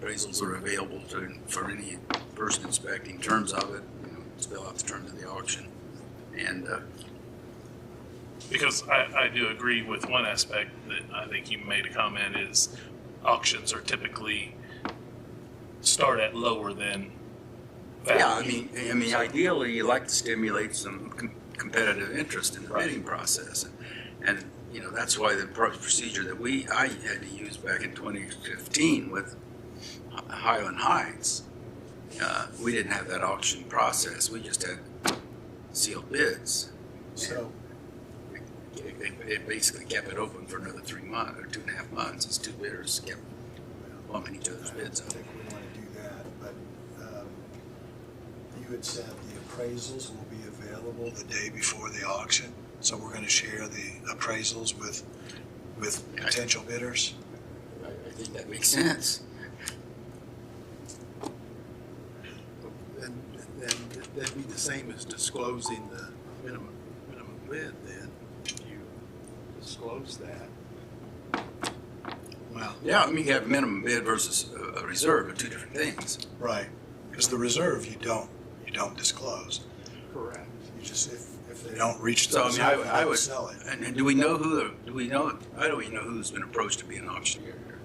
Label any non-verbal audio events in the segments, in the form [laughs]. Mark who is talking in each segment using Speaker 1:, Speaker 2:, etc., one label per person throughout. Speaker 1: appraisals that are available to, for any person inspecting, terms of it, you know, spell out the terms of the auction. And, uh,
Speaker 2: Because I, I do agree with one aspect that I think you made a comment is auctions are typically start at lower than
Speaker 1: yeah, I
Speaker 2: value.
Speaker 1: mean, I mean, ideally, you like to stimulate some com- competitive interest in the
Speaker 2: Right.
Speaker 1: bidding process. And, you know, that's why the pro- procedure that we, I had to use back in twenty fifteen with Hi- Highland Heights, uh, we didn't have that auction process, we just had sealed bids.
Speaker 3: So,
Speaker 1: It, it- it basically kept it open for another three months, or two and a half months, as two bidders kept bumping each other's bids
Speaker 3: I
Speaker 1: up.
Speaker 3: think we want to do that, but um, you had said the appraisals will be available the day before the auction, so we're going to share the appraisals with, with
Speaker 1: Yeah.
Speaker 3: potential bidders?
Speaker 1: I, I think that makes sense.
Speaker 4: And, and that'd be the same as disclosing the minimum, minimum bid then, if you disclose that.
Speaker 3: Well,
Speaker 1: Yeah, I mean, you have minimum bid versus a- a reserve are two different things.
Speaker 3: right, because the reserve, you don't, you don't disclose.
Speaker 4: Correct.
Speaker 3: You just, if, if they don't reach the
Speaker 1: So, I mean, I would-
Speaker 3: reserve, you
Speaker 1: I
Speaker 3: don't
Speaker 1: would-
Speaker 3: sell it.
Speaker 1: And, and do we know who, the- do we know, I don't even know who's been approached to be an auctioneer here.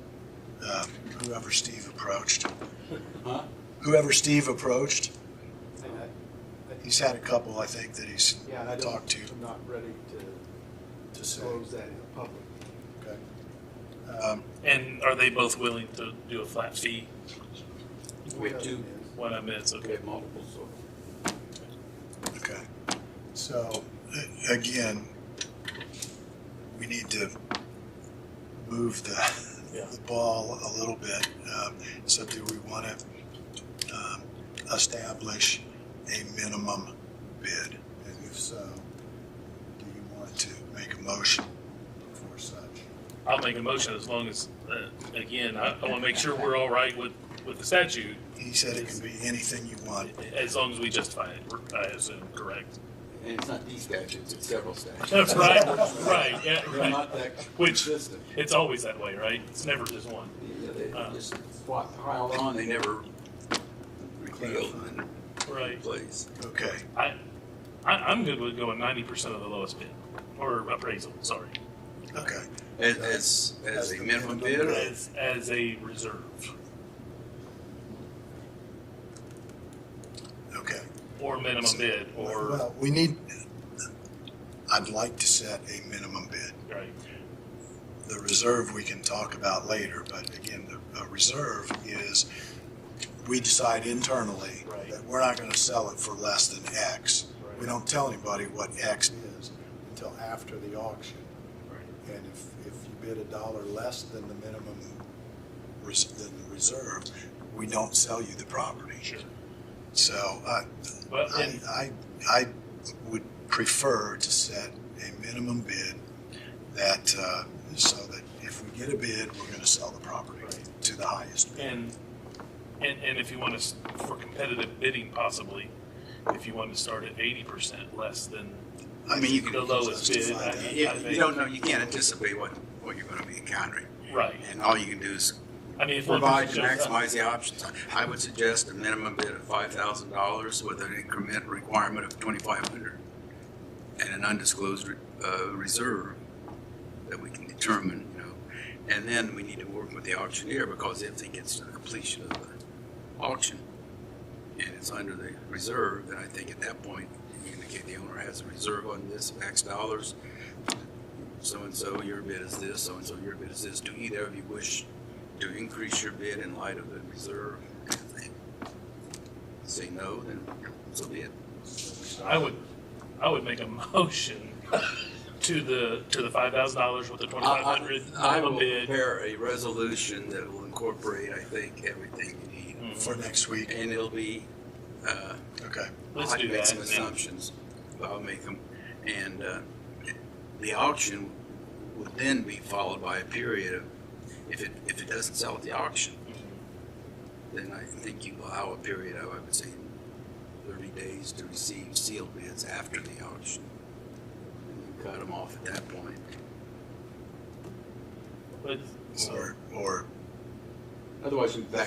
Speaker 3: Um, Whoever Steve approached. Whoever Steve approached,
Speaker 4: And I,
Speaker 3: he's had a couple, I think, that he's
Speaker 4: yeah, I don't,
Speaker 3: talked to.
Speaker 4: I'm not ready to
Speaker 3: to say.
Speaker 4: disclose that in the public.
Speaker 3: Okay. Um,
Speaker 2: And are they both willing to do a flat fee?
Speaker 1: We have two.
Speaker 2: What I meant,
Speaker 1: We
Speaker 2: okay.
Speaker 1: have multiple, so.
Speaker 3: Okay, so, a- again, we need to move the,
Speaker 2: Yeah.
Speaker 3: the ball a little bit. Um, So do we want to establish a minimum bid? And if so, do you want to make a motion for such?
Speaker 2: I'll make a motion as long as, uh, again, I, I want to make sure we're all right with, with the statute,
Speaker 3: He said it can be anything you want.
Speaker 2: as long as we justify it, I assume, correct?
Speaker 1: And it's not these statutes, it's several statutes.
Speaker 2: That's right, right, yeah,
Speaker 1: They're
Speaker 2: right.
Speaker 1: not that
Speaker 2: Which-
Speaker 1: consistent.
Speaker 2: It's always that way, right? It's never just one.
Speaker 1: Yeah, They
Speaker 2: Uh.
Speaker 1: just plot- piled on, they never repealed and
Speaker 2: Right.
Speaker 1: replaced.
Speaker 3: Okay,
Speaker 2: I, I, I'm good with going ninety percent of the lowest bid, or appraisal, sorry,
Speaker 3: okay.
Speaker 1: As, as, as a minimum bid, or-
Speaker 2: as, as a reserve,
Speaker 3: Okay.
Speaker 2: or minimum bid, or,
Speaker 3: Well, we need, I'd like to set a minimum bid.
Speaker 2: right,
Speaker 3: The reserve we can talk about later, but again, the, a reserve is, we decide internally
Speaker 2: Right.
Speaker 3: that we're not gonna sell it for less than X. We
Speaker 4: Right.
Speaker 3: don't tell anybody what X is until after the auction. And if, if you bid a dollar less than the minimum, res- than the reserve, we don't sell you the property.
Speaker 2: sure.
Speaker 3: So, uh, I,
Speaker 2: But,
Speaker 3: I,
Speaker 2: and,
Speaker 3: I, I would prefer to set a minimum bid that, uh, so that if we get a bid, we're gonna sell the property
Speaker 2: Right.
Speaker 3: to the highest. bid.
Speaker 2: and, and, and if you want to, for competitive bidding possibly, if you want to start at eighty percent less than
Speaker 1: I mean, you
Speaker 2: the
Speaker 1: can,
Speaker 2: lowest bid,
Speaker 3: justify
Speaker 2: I-
Speaker 1: you,
Speaker 2: I
Speaker 1: you
Speaker 2: think-
Speaker 1: don't know, you can't anticipate what, what you're gonna be encountering.
Speaker 2: right,
Speaker 1: And all you can do is
Speaker 2: I mean, if one
Speaker 1: provide
Speaker 2: person
Speaker 1: to
Speaker 2: jumps up,
Speaker 1: maximize the options. I would suggest a minimum bid of five thousand dollars with an increment requirement of twenty-five hundred and an undisclosed, re- uh, reserve that we can determine, you know. And then we need to work with the auctioneer because if it gets to the completion of the auction and it's under the reserve, then I think at that point, you indicate the owner has a reserve on this X dollars. So-and-so, your bid is this, so-and-so, your bid is this. Do either of you wish to increase your bid in light of the reserve? And if they Say no, then so be it.
Speaker 2: I would, I would make a [laughs] motion to the, to the five thousand dollars with the twenty-five hundred
Speaker 1: I will
Speaker 2: minimum bid.
Speaker 1: prepare a resolution that will incorporate, I think, everything you need.
Speaker 2: Mhm.
Speaker 3: For next week,
Speaker 1: And it'll be, uh,
Speaker 3: okay.
Speaker 2: Let's
Speaker 1: I'll
Speaker 2: do
Speaker 1: make
Speaker 2: that.
Speaker 1: some
Speaker 2: and then-
Speaker 1: assumptions, but I'll make them. And uh, the auction would then be followed by a period of, if it, if it doesn't sell at the auction, then I think you allow a period of, I would say, thirty days to receive sealed bids after the auction. And you Cut them off at that point.
Speaker 2: But, so-
Speaker 3: Or, or
Speaker 2: uh,
Speaker 1: Otherwise, you're back